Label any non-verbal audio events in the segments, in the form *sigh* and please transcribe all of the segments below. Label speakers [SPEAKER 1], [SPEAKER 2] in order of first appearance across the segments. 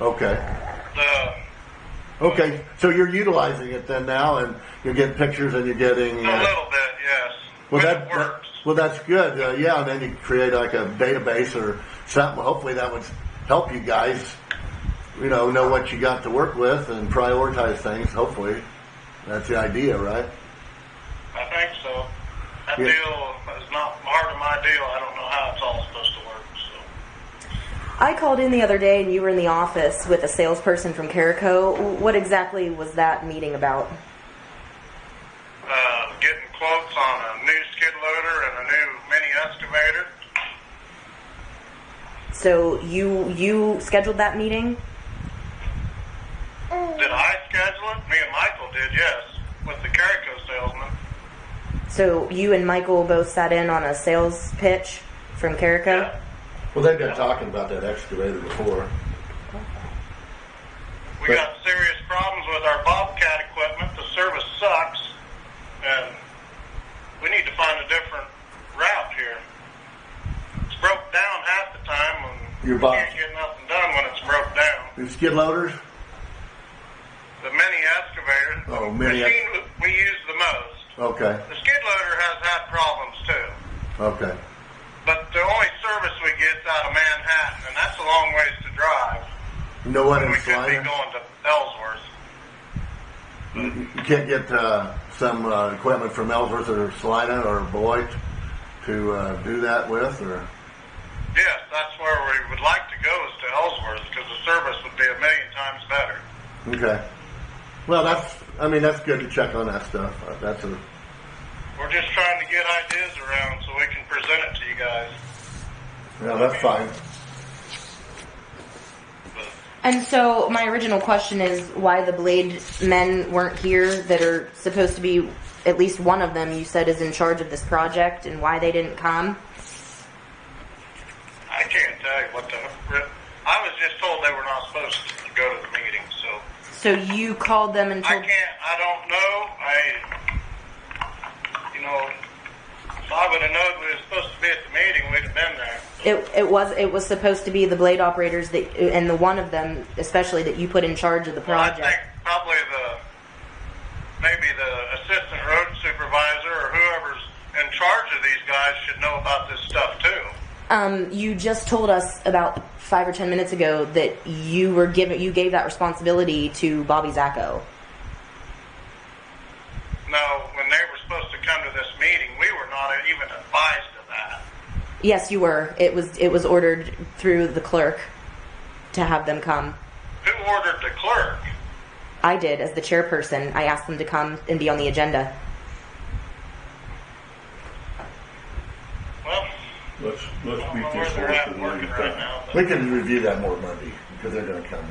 [SPEAKER 1] Okay.
[SPEAKER 2] The,
[SPEAKER 1] Okay. So you're utilizing it then now, and you're getting pictures, and you're getting.
[SPEAKER 2] A
[SPEAKER 1] Uh,
[SPEAKER 2] little bit, yes. But
[SPEAKER 1] well, that,
[SPEAKER 2] it works.
[SPEAKER 1] well, that's good. Uh, yeah, and then you create like a database or something. Hopefully, that would help you guys. You know, know what you got to work with and prioritize things. Hopefully, that's the idea, right?
[SPEAKER 2] I think so. That
[SPEAKER 1] Yeah.
[SPEAKER 2] deal is not part of my deal. I don't know how it's all supposed to work. So
[SPEAKER 3] I called in the other day and you were in the office with a salesperson from Carico. What exactly was that meeting about?
[SPEAKER 2] uh, getting quotes on a new skid loader and a new mini excavator.
[SPEAKER 3] So you you scheduled that meeting?
[SPEAKER 2] Did I schedule it? Me and Michael did, yes, with the Carico salesman.
[SPEAKER 3] So you and Michael both sat in on a sales pitch from Carico?
[SPEAKER 1] Well, they've been talking about that excavator before.
[SPEAKER 2] We
[SPEAKER 1] But-
[SPEAKER 2] got serious problems with our Bobcat equipment. The service sucks, and we need to find a different route here. It's broke down half the time, and
[SPEAKER 1] Your
[SPEAKER 2] we
[SPEAKER 1] Bob-
[SPEAKER 2] can't get nothing done when it's broke down.
[SPEAKER 1] The skid loaders.
[SPEAKER 2] The mini excavator,
[SPEAKER 1] Oh,
[SPEAKER 2] the
[SPEAKER 1] mini
[SPEAKER 2] machine we use the most.
[SPEAKER 1] Okay.
[SPEAKER 2] The skid loader has had problems too,
[SPEAKER 1] Okay.
[SPEAKER 2] but the only service we get's out of Manhattan, and that's a long ways to drive.
[SPEAKER 1] You know what?
[SPEAKER 2] We
[SPEAKER 1] In
[SPEAKER 2] could be
[SPEAKER 1] Salina,
[SPEAKER 2] going to Ellsworth.
[SPEAKER 1] you can't get uh, some uh, equipment from Ellsworth or Salina or Beloit to uh, do that with, or
[SPEAKER 2] Yes, that's where we would like to go is to Ellsworth because the service would be a million times better.
[SPEAKER 1] okay. Well, that's. I mean, that's good to check on that stuff. Uh, That's a.
[SPEAKER 2] We're just trying to get ideas around so we can present it to you guys.
[SPEAKER 1] Yeah, that's fine.
[SPEAKER 2] But
[SPEAKER 3] And so my original question is why the blade men weren't here that are supposed to be at least one of them you said is in charge of this project and why they didn't come?
[SPEAKER 2] I can't tell you what the. I was just told they were not supposed to go to the meeting, so
[SPEAKER 3] So you called them and
[SPEAKER 2] I
[SPEAKER 3] told
[SPEAKER 2] can't. I don't know. I, you know, if I would have known we were supposed to be at the meeting, we'd have been there.
[SPEAKER 3] It, it was it was supposed to be the blade operators that and the one of them especially that you put in charge of the
[SPEAKER 2] Well, I think
[SPEAKER 3] project.
[SPEAKER 2] probably the maybe the assistant road supervisor or whoever's in charge of these guys should know about this stuff too.
[SPEAKER 3] Um, you just told us about five or ten minutes ago that you were given you gave that responsibility to Bobby Zacco.
[SPEAKER 2] No, when they were supposed to come to this meeting, we were not even advised of that.
[SPEAKER 3] Yes, you were. It was it was ordered through the clerk to have them come.
[SPEAKER 2] Who ordered the clerk?
[SPEAKER 3] I did as the chairperson. I asked them to come and be on the agenda.
[SPEAKER 2] Well,
[SPEAKER 4] Let's,
[SPEAKER 2] I
[SPEAKER 4] let's
[SPEAKER 2] don't
[SPEAKER 4] beat
[SPEAKER 2] know
[SPEAKER 4] this
[SPEAKER 2] where
[SPEAKER 4] horse
[SPEAKER 2] they're
[SPEAKER 4] to
[SPEAKER 2] at
[SPEAKER 4] the
[SPEAKER 2] working right now, but
[SPEAKER 1] We can review that more Monday because they're going to come.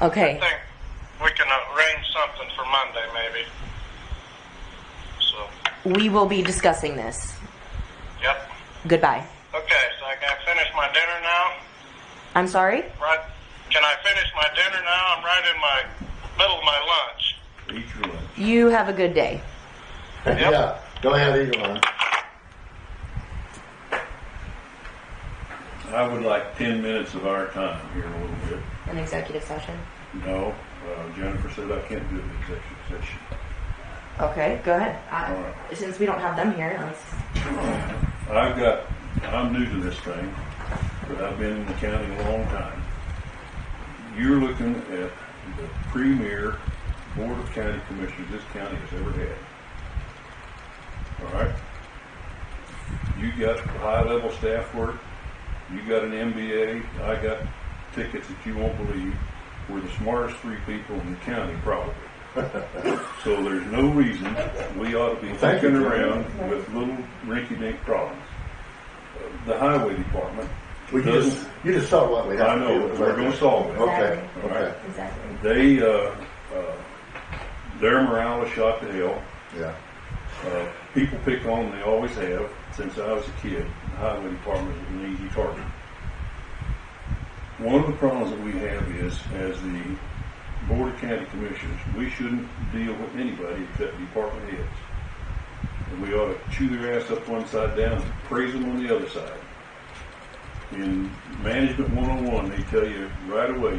[SPEAKER 3] Okay.
[SPEAKER 2] I think we can arrange something for Monday maybe. So,
[SPEAKER 3] We will be discussing this.
[SPEAKER 2] yep.
[SPEAKER 3] Goodbye.
[SPEAKER 2] Okay, so I got finished my dinner now.
[SPEAKER 3] I'm sorry?
[SPEAKER 2] Right. Can I finish my dinner now? I'm right in my middle of my lunch.
[SPEAKER 4] Eat your lunch.
[SPEAKER 3] You have a good day.
[SPEAKER 1] *laughs* yeah. Go ahead, either one.
[SPEAKER 4] I would like ten minutes of our time here in a little bit.
[SPEAKER 3] An executive session.
[SPEAKER 4] No, uh, Jennifer said I can't do an executive session.
[SPEAKER 3] Okay, go ahead.
[SPEAKER 4] All
[SPEAKER 3] I, Uh, since we don't have them here, let's,
[SPEAKER 4] I've got, I'm new to this thing, but I've been in the county a long time. You're looking at the premier board of county commissioners this county has ever had. All right? You got high-level staff work, you got an MBA, I got tickets that you won't believe. We're the smartest three people in the county, probably. *laughs* So there's no reason we ought to be
[SPEAKER 1] Thank you,
[SPEAKER 4] thinking
[SPEAKER 1] Jim.
[SPEAKER 4] around with little rinky-dink problems. Uh, The highway department
[SPEAKER 1] We just
[SPEAKER 4] doesn't,
[SPEAKER 1] you just saw what we have
[SPEAKER 4] I
[SPEAKER 1] to
[SPEAKER 4] know,
[SPEAKER 1] do. with
[SPEAKER 4] we're
[SPEAKER 1] it.
[SPEAKER 4] gonna solve it.
[SPEAKER 1] Okay.
[SPEAKER 4] Exactly.
[SPEAKER 1] Okay.
[SPEAKER 3] exactly.
[SPEAKER 4] They, uh, uh, their morale is shot to hell.
[SPEAKER 1] Yeah.
[SPEAKER 4] Uh, people pick on them, they always have, since I was a kid. The highway department is an easy target. One of the problems that we have is, as the Board of County Commissioners, we shouldn't deal with anybody except department heads. And we ought to chew their ass up one side down and praise them on the other side. In Management 101, they tell you right away,